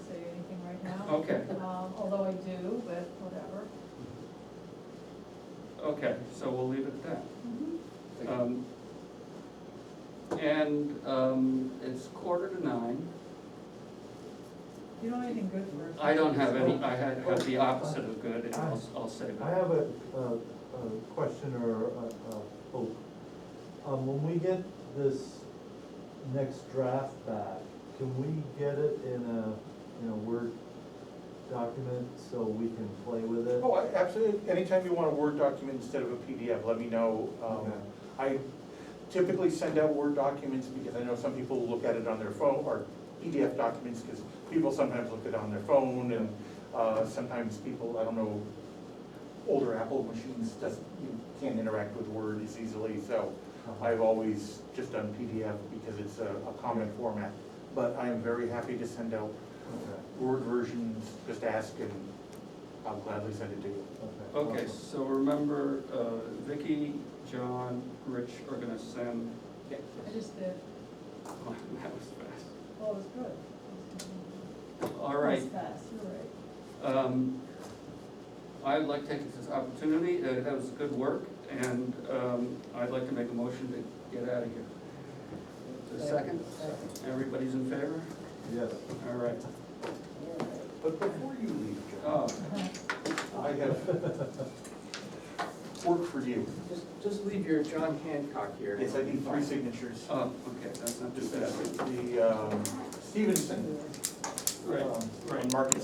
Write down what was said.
um, although I do, but whatever. Okay, so we'll leave it at Mhm. that. Um, And um, it's quarter to nine. You don't have anything good for us? I don't have any, I had, have the opposite of good, and I'll, I'll save I it. have a, a, a question or a, a hope. Um, when we get this next draft back, can we get it in a, in a Word document so we can play with it? Oh, I- absolutely, anytime you want a Word document instead of a PDF, let me know. Um, Okay. I typically send out Word documents because I know some people look at it on their phone, or PDF documents, because people sometimes look at it on their phone, and uh, sometimes people, I don't know, older Apple machines just, you can't interact with Word as easily, so I've always just done PDF because it's a a common format. But I am very happy to send out Okay, Word versions, just ask and I'll gladly send it to you. Okay, awesome. so remember, uh, Vicky, John, Rich are gonna send, Oh, I just did, that was fast. well, it was good. All right, It was fast, you're right. Um, I'd like to take this opportunity, uh, that was good work, and um, I'd like to make a motion to get out of here. Is there a Second? Everybody's in favor? Yes. All right. But before you leave, John, Oh, I have work for you. Just, just leave your John Hancock here. Yes, I need three signatures. oh, okay, that's not too Just bad. that, the um, Stevenson, Right, um, right. on Market